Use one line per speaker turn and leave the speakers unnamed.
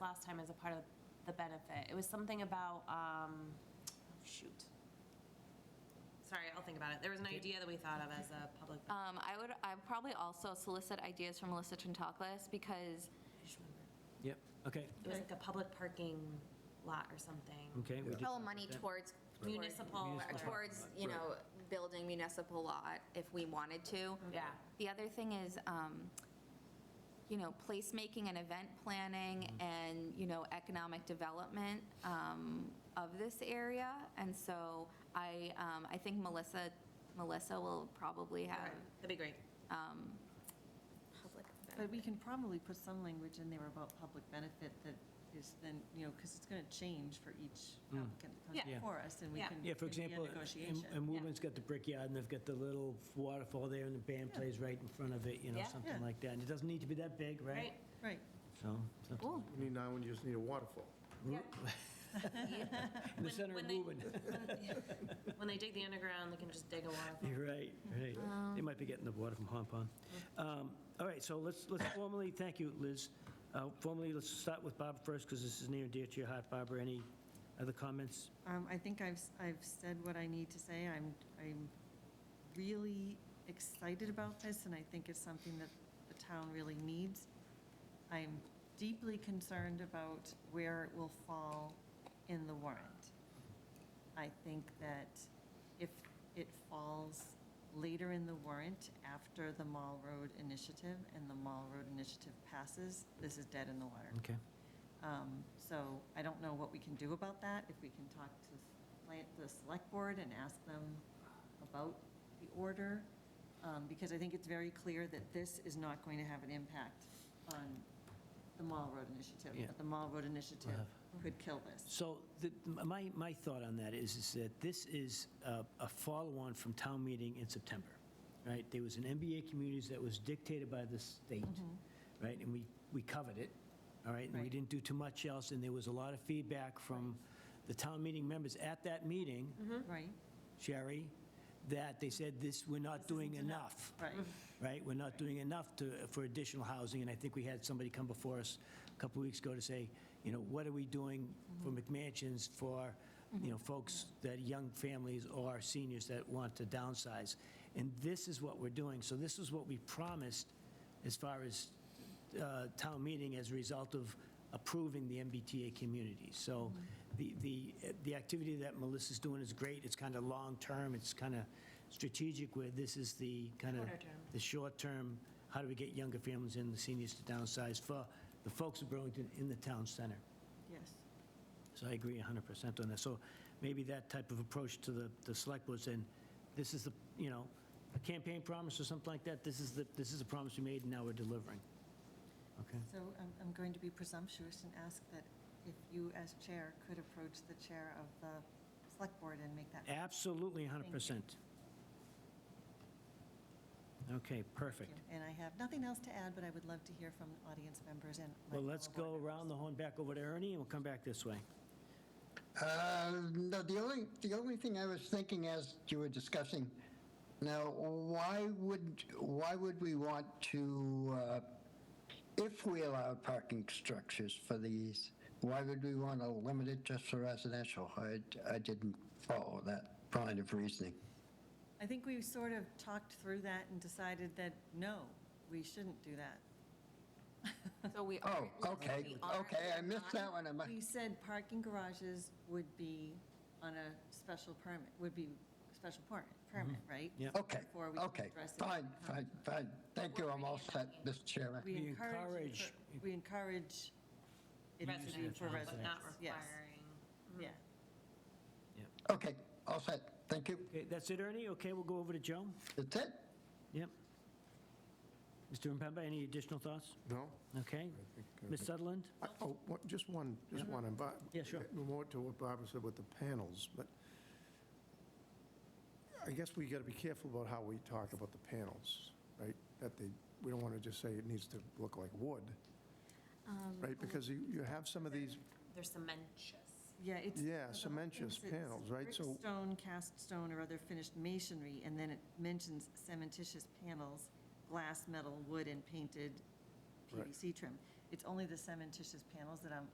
last time as a part of the benefit. It was something about, um, oh, shoot. Sorry, I'll think about it. There was an idea that we thought of as a public.
Uh,
Um, I would, I would probably also solicit ideas from Melissa Trentalles because
I just remembered.
Yep, okay,
It was like a public parking lot or something.
okay. we did
all
that.
money towards.
Municipal.
Municipal.
or-
Towards, you know, building municipal lot if we wanted to.
Yeah,
The other thing is, um, you know, placemaking and event planning and, you know, economic development um, of this area. And so I, um, I think Melissa, Melissa will probably have.
that'd be great.
public event.
But we can probably put some language in there about public benefit that is then, you know, because it's going to change for each applicant that
Yeah.
comes before us, and we
Yeah.
can.
Yeah, for
it can be a
example,
Negotiation.
and Woburn's got the Brickyard, and they've got the little waterfall there, and the band plays right in front of it, you know,
Yeah.
Yeah.
something like that. And it doesn't need to be that big, right?
Right?
Right.
So, something
Cool.
You need nine when you just need a waterfall.
in the
When-
center of
when they-
Woburn.
When they dig the underground, they can just dig a waterfall.
You're right, right. They might be getting the water from Hong Kong. Um, All right, so let's, let's formally, thank you, Liz. Uh, Formally, let's start with Bob first, because this is near and dear to your heart. Barbara, any other comments?
Um, I think I've, s- I've said what I need to say. I'm, I'm really excited about this, and I think it's something that the town really needs. I'm deeply concerned about where it will fall in the warrant. I think that if it falls later in the warrant, after the Mall Road Initiative, and the Mall Road Initiative passes, this is dead in the water.
Okay.
Um, So I don't know what we can do about that, if we can talk to s- plant- the select board and ask them about the order, um, because I think it's very clear that this is not going to have an impact on the Mall Road Initiative.
Yeah. Uh-huh.
But the Mall Road Initiative
Wow.
could kill this.
So the- my, my thought on that is, is that this is a a follow-on from town meeting in September, right? There was an MBA communities that was dictated by the state, right? And we, we covered it, all Mm-hmm. right? And we
Right.
didn't do too much else, and there was a lot of feedback from the town meeting members at that meeting,
Right,
Sherry, that they said this, we're not doing enough,
right.
right? We're not doing enough to, for additional housing, and I think we had somebody come before us a couple of weeks ago to say, you know, what are we doing for McMansions for, you know, folks that, young families or seniors that want to downsize? And this is what we're doing. So this is what we promised as far as uh, town meeting as a result of approving the MBTA community. So the, the, the activity that Melissa's doing is great. It's kind of long-term, it's kind of strategic, where this is the kind of,
Shorter term.
the short-term, how do we get younger families and the seniors to downsize for the folks of Burlington in the town center.
Yes.
So I agree 100% on that. So maybe that type of approach to the, the select board saying, this is the, you know, a campaign promise or something like that, this is the, this is the promise we made and now we're delivering. Okay?
So I'm, I'm going to be presumptuous and ask that if you, as chair, could approach the chair of the select board and make that.
Absolutely 100%. Okay, perfect.
And I have nothing else to add, but I would love to hear from audience members and. my
Well, let's
fellow
go
board
around the horn back over to Ernie and we'll come back this way.
Uh, No, the only, the only thing I was thinking as you were discussing, now, why would, why would we want to, uh, if we allow parking structures for these, why would we want to limit it just for residential? I, I didn't follow that line of reasoning.
I think we sort of talked through that and decided that, no, we shouldn't do that.
So we
Oh,
are.
okay,
we are-
okay, I missed that one. I mu-
We said parking garages would be on a special permit, would be special permit, permit, right?
Mm-hmm. Yeah.
Okay,
Before we
okay,
address it.
fine, fine, fine. Thank you, I'm all set, Mr. Chairman.
We
We
encourage,
encourage-
we encourage it to be
Residential,
for residents.
but not
yes,
requiring.
Yeah.
Okay, all set, thank you.
Okay, that's it, Ernie? Okay, we'll go over to Joe.
That's it?
Yep. Mr. Impemba, any additional thoughts?
No?
Okay. Ms. Sutherland?
uh, I- Oh, what- just one, just one. and Bar-
Yeah, sure.
More to what Barbara said with the panels, but I guess we got to be careful about how we talk about the panels, right? That they, we don't want to just say it needs to look like wood,
Um,
right? Because you, you have some of these,
They're cementitious.
Yeah, it's.
Yeah,
the whole thing
cementitious
says
panels, right?
brick,
So-
Stone, cast stone, or other finished masonry, and then it mentions cementitious panels, glass, metal, wood, and painted
Right.
PVC trim. It's only the cementitious panels that I'm